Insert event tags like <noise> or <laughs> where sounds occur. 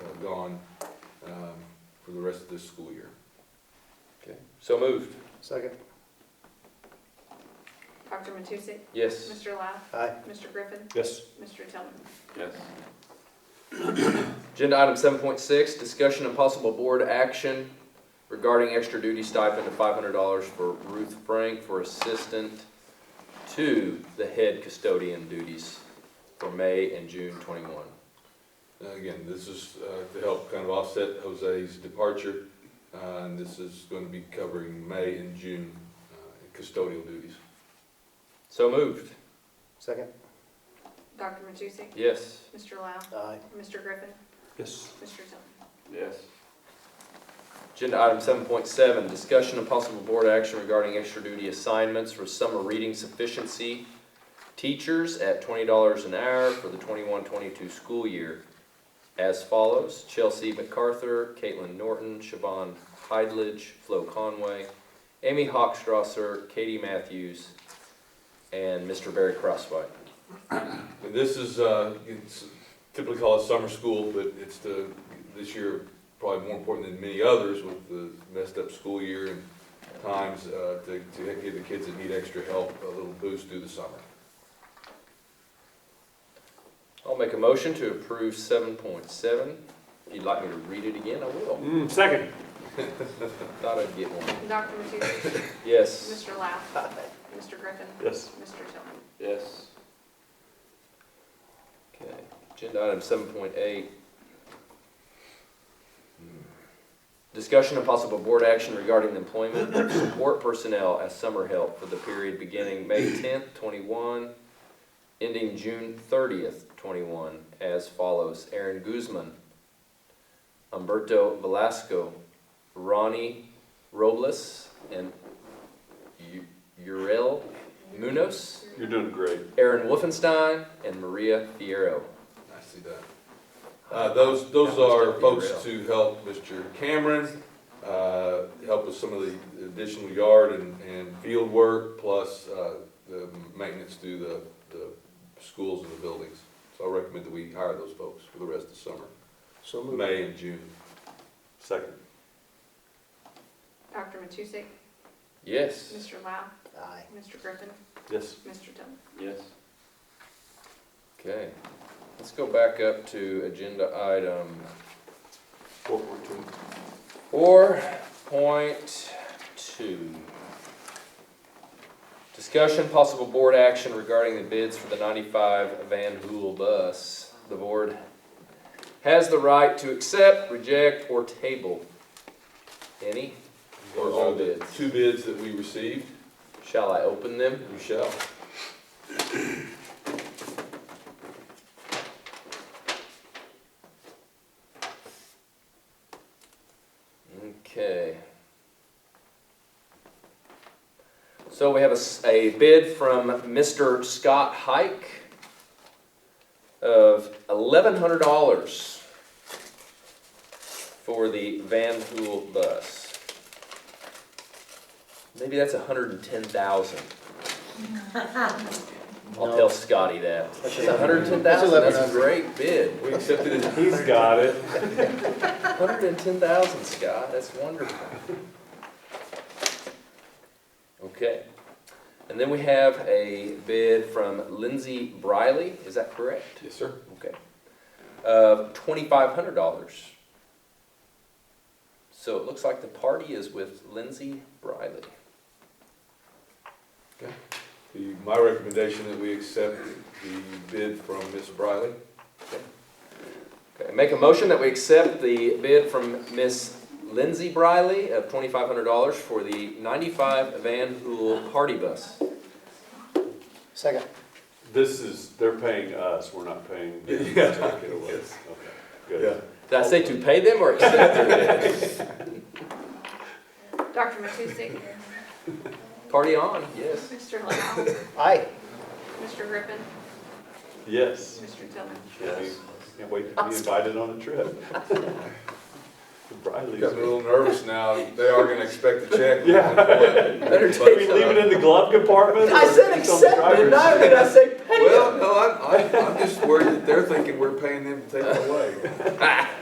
uh, gone um, for the rest of this school year. Okay, so moved. Second. Dr. Matusek? Yes. Mr. Lau? Aye. Mr. Griffin? Yes. Mr. Tillman? Yes. <clears throat> Agenda item seven point six, discussion and possible board action regarding extra duty stipend of five hundred dollars for Ruth Frank for assistant to the head custodian duties for May and June twenty-one. And Again, this is uh, to help kind of offset Jose's departure, uh, and this is going to be covering May and June uh, custodial duties. So moved. Second. Dr. Matusek? Yes. Mr. Lau? Aye. Mr. Griffin? Yes. Mr. Tillman? Yes. Agenda item seven point seven, discussion and possible board action regarding extra duty assignments for summer reading sufficiency teachers at twenty dollars an hour for the 21-22 school year as follows. Chelsea MacArthur, Caitlin Norton, Siobhan Heidlich, Flo Conway, Amy Hochstrasser, Katie Matthews, and Mr. Barry Crosswhite. And this is, uh, it's typically called summer school, but it's the, this year, probably more important than many others with the messed up school year and times, uh, to, to give the kids that need extra help a little boost through the summer. I'll make a motion to approve seven point seven. If you'd like me to read it again, I will. Mm, second. Thought I'd get one. Dr. Matusek? Yes. Mr. Lau? Mr. Griffin? Yes. Mr. Tillman? Yes. Okay, agenda item seven point eight. Discussion and possible board action regarding the employment of support personnel as summer help for the period beginning May tenth, twenty-one, ending June thirtieth, twenty-one, as follows. Aaron Guzman, Humberto Velasco, Ronnie Robles, and U- Uriel Munoz. You're doing great. Aaron Wolfenstein and Maria Fierro. I see that. Uh, those, those That must are be folks real. to help Mr. Cameron, uh, help with some of the additional yard and, and field work, plus, uh, the maintenance through the, the schools and the buildings. So I recommend that we hire those folks for the rest of the summer, So moved. May and June. Second. Dr. Matusek? Yes. Mr. Lau? Aye. Mr. Griffin? Yes. Mr. Tillman? Yes. Okay, let's go back up to agenda item Four point two. four point two. Discussion, possible board action regarding the bids for the ninety-five Van Hool bus. The board has the right to accept, reject, or table any or Those all are the bids. Two bids that we received, Shall I open them? you shall. Okay. So we have a, s- a bid from Mr. Scott Hike of eleven hundred dollars for the Van Hool bus. Maybe that's a hundred and ten thousand. I'll No. tell Scotty that. That's That's a hundred and ten thousand, that's a 1100. great bid. We accepted it as He's got it. Hundred and ten thousand, Scott, that's wonderful. Okay, and then we have a bid from Lindsay Briley, is that correct? Yes, sir. Okay, of twenty-five hundred dollars. So it looks like the party is with Lindsay Briley. The, my recommendation that we accept the bid from Ms. Briley. Okay, make a motion that we accept the bid from Miss Lindsay Briley of twenty-five hundred dollars for the ninety-five Van Hool party bus. Second. This is, they're paying us, we're not <laughs> paying them to Yeah. take it away. Yes. Okay, good. Did I say to pay them or <laughs> accept their bid? <laughs> Dr. Matusek? Party on, yes. Mr. Lau? Aye. Mr. Griffin? Yes. Mr. Tillman? Yes. Can't wait to be invited on a trip. <laughs> Briley's. Got a little nervous now. They are gonna expect a check. Yeah. Better Do we take leave it in the glove compartment? I said or it's on the accept, did driver's I? Did I say pay? Well, no, I'm, I'm, I'm just worried that they're thinking we're paying them to take it away. Ah,